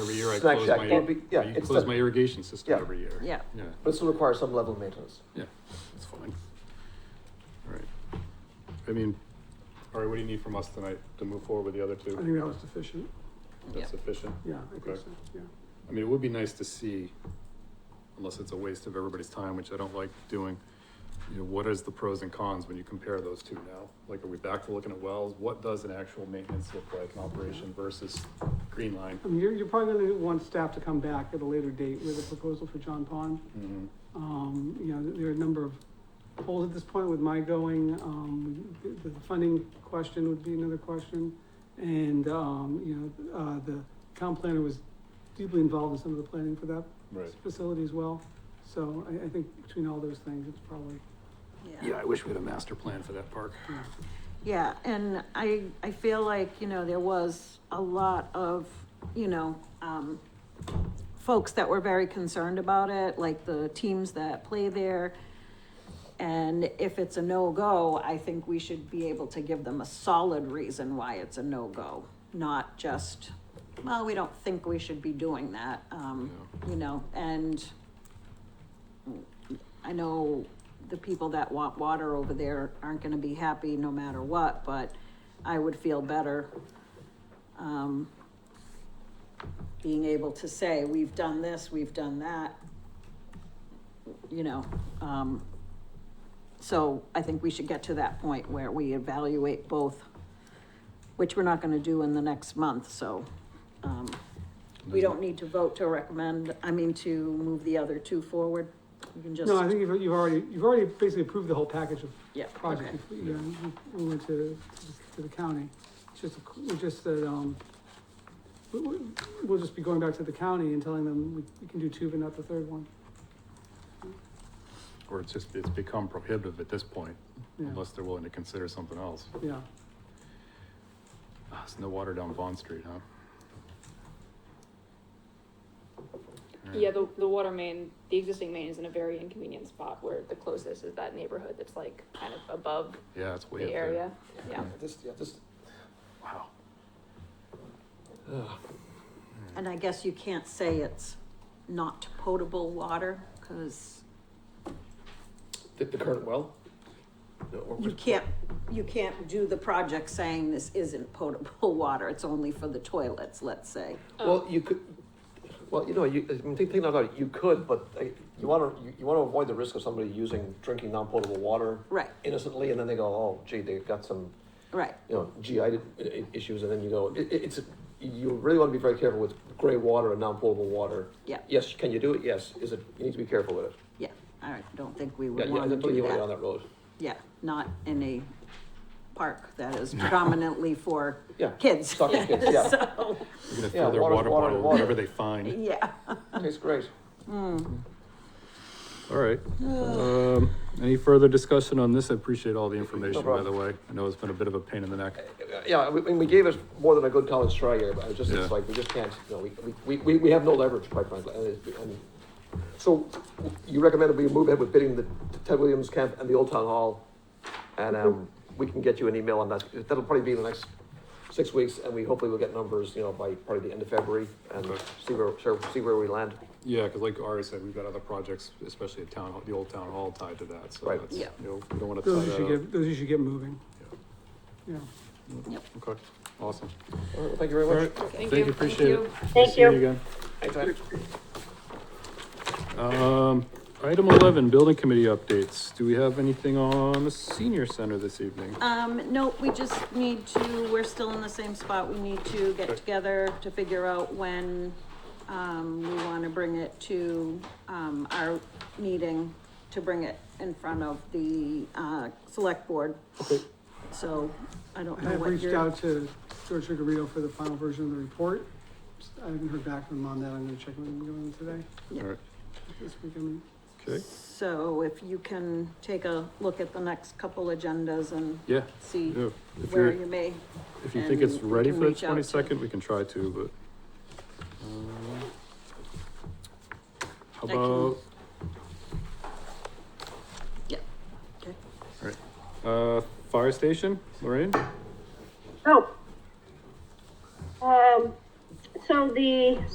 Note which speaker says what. Speaker 1: year I
Speaker 2: Snack
Speaker 1: close
Speaker 2: shack,
Speaker 1: my,
Speaker 2: don't be- yeah,
Speaker 1: I
Speaker 2: it's
Speaker 1: close
Speaker 2: the-
Speaker 1: my irrigation system
Speaker 2: yeah.
Speaker 1: every year.
Speaker 3: Yeah.
Speaker 1: Yeah,
Speaker 2: But it still requires some level of maintenance.
Speaker 1: yeah, it's fine. All right. I mean, all right, what do you need from us tonight to move forward with the other
Speaker 4: I
Speaker 1: two?
Speaker 4: think that was deficient,
Speaker 3: Yeah.
Speaker 1: That's sufficient?
Speaker 4: yeah, I think
Speaker 1: Okay.
Speaker 4: so, yeah.
Speaker 1: I mean, it would be nice to see, unless it's a waste of everybody's time, which I don't like doing, you know, what is the pros and cons when you compare those two now? Like, are we back to looking at wells? What does an actual maintenance look like in operation versus green line?
Speaker 4: I mean, you're, you're probably gonna want staff to come back at a later date with a proposal for John Pond.
Speaker 1: Mhm.
Speaker 4: Um, you know, there are a number of holes at this point with my going, um, the, the funding question would be another question. And, um, you know, uh, the town planner was deeply involved in some of the planning for that
Speaker 1: Right.
Speaker 4: facility as well. So I, I think between all those things, it's probably,
Speaker 1: Yeah, I wish we had a master plan for that park.
Speaker 4: you know,
Speaker 3: Yeah, and I, I feel like, you know, there was a lot of, you know, um, folks that were very concerned about it, like the teams that play there. And if it's a no-go, I think we should be able to give them a solid reason why it's a no-go, not just, well, we don't think we should be doing that, um, you know, and I know the people that want water over there aren't gonna be happy no matter what, but I would feel better, um, being able to say, we've done this, we've done that. You know, um, so I think we should get to that point where we evaluate both, which we're not gonna do in the next month, so, um, we don't need to vote to recommend, I mean, to move the other two forward. You can just.
Speaker 4: no, I think you've, you've already, you've already basically approved the whole package of
Speaker 3: Yeah,
Speaker 4: project, if, you know, we went to, to the county. It's just, we just said, um, we, we, we'll just be going back to the county and telling them we, we can do two, but not the third one.
Speaker 1: Or it's just, it's become prohibitive at this point,
Speaker 4: Yeah,
Speaker 1: unless they're willing to consider something else.
Speaker 4: yeah,
Speaker 1: Ah, There's no water down Bond Street, huh? All right.
Speaker 5: Yeah, the, the water main, the existing main is in a very inconvenient spot where the closest is that neighborhood that's like kind of above
Speaker 1: Yeah, it's way up
Speaker 5: the
Speaker 1: there.
Speaker 5: area. Yeah.
Speaker 2: This, yeah, this,
Speaker 1: Wow.
Speaker 3: And I guess you can't say it's not potable water, because
Speaker 6: The, the current well? No, or
Speaker 3: you
Speaker 6: which-
Speaker 3: can't, you can't do the project saying this isn't potable water, it's only for the toilets, let's say.
Speaker 6: Well, you could, well, you know, you, I mean, think, think about it, you could, but uh,
Speaker 2: you wanna, you, you wanna avoid the risk of somebody using, drinking non-potable water
Speaker 3: Right,
Speaker 2: innocently, and then they go, oh gee, they got some,
Speaker 3: right,
Speaker 2: you know, GI i- i- issues, and then you go, it, it- it's, you really wanna be very careful with gray water and non-potable water.
Speaker 3: Yeah.
Speaker 2: Yes, can you do it? Yes, is it, you need to be careful with it.
Speaker 3: yeah, I don't think we
Speaker 2: Yeah, yeah,
Speaker 3: would
Speaker 2: I
Speaker 3: want to
Speaker 2: don't think
Speaker 3: do
Speaker 2: you wanna go down
Speaker 3: that.
Speaker 2: that road.
Speaker 3: Yeah, not in a park that is predominantly for
Speaker 2: Yeah.
Speaker 3: kids.
Speaker 2: Suck it, kids, yeah,
Speaker 3: So,
Speaker 1: They're gonna
Speaker 2: Yeah,
Speaker 1: fill their water
Speaker 2: water's water,
Speaker 1: bottle
Speaker 2: water.
Speaker 1: wherever they find.
Speaker 3: yeah.
Speaker 2: tastes great.
Speaker 1: All right. Um, any further discussion on this? I appreciate all the information, by the
Speaker 2: problem.
Speaker 1: way. I know it's been a bit of a pain in the neck.
Speaker 2: Yeah, we, we gave us more than a good college try here, but I just, it's
Speaker 1: Yeah.
Speaker 2: like, we just can't, you know, we, we, we, we have no leverage, quite frankly. and it's- and- So you recommended we move ahead with bidding the Ted Williams camp and the Old Town Hall? And, um, we can get you an email on that. That'll probably be in the next six weeks, and we hopefully will get numbers, you know, by probably the end of February and
Speaker 1: Okay.
Speaker 2: see where, see where we land.
Speaker 1: Yeah, because like Ari said, we've got other projects, especially at town, hall- the old town hall tied to that, so
Speaker 2: Right.
Speaker 1: that's, you
Speaker 3: Yeah.
Speaker 1: know, we don't want to tie
Speaker 4: those you should
Speaker 1: that up.
Speaker 4: get, those you should get moving,
Speaker 1: Yeah.
Speaker 4: yeah.
Speaker 1: Okay, awesome.
Speaker 2: All right, well, thank you very
Speaker 1: All
Speaker 2: much.
Speaker 1: right,
Speaker 5: Thank
Speaker 1: thank you,
Speaker 5: you.
Speaker 1: appreciate
Speaker 5: Thank
Speaker 1: it.
Speaker 5: you.
Speaker 1: Thank you. See you again.
Speaker 2: Anytime.
Speaker 1: Um, item eleven, building committee updates. Do we have anything on the senior center this evening?
Speaker 3: Um, no, we just need to, we're still in the same spot, we need to get
Speaker 1: Okay.
Speaker 3: together to figure out when, um, we wanna bring it to, um, our meeting, to bring it in front of the, uh, select board. So, I don't
Speaker 4: I
Speaker 3: know
Speaker 4: have
Speaker 3: what
Speaker 4: reached
Speaker 3: you're,
Speaker 4: out to George Chigarito for the final version of the report. I haven't heard back from him on that, I'm gonna check with him going today,
Speaker 3: Yeah.
Speaker 1: All right,
Speaker 4: this week, I mean.
Speaker 1: okay,
Speaker 3: so if you can take a look at the next couple agendas and
Speaker 1: yeah.
Speaker 3: see
Speaker 1: yeah. If
Speaker 3: where
Speaker 1: you're,
Speaker 3: you may,
Speaker 1: if you think it's
Speaker 3: and we
Speaker 1: ready
Speaker 3: can
Speaker 1: for the
Speaker 3: reach out to-
Speaker 1: twenty-second, we can try to, but. um, How
Speaker 3: I can-
Speaker 1: about,
Speaker 3: yeah, okay.
Speaker 1: uh, fire station, Lorraine?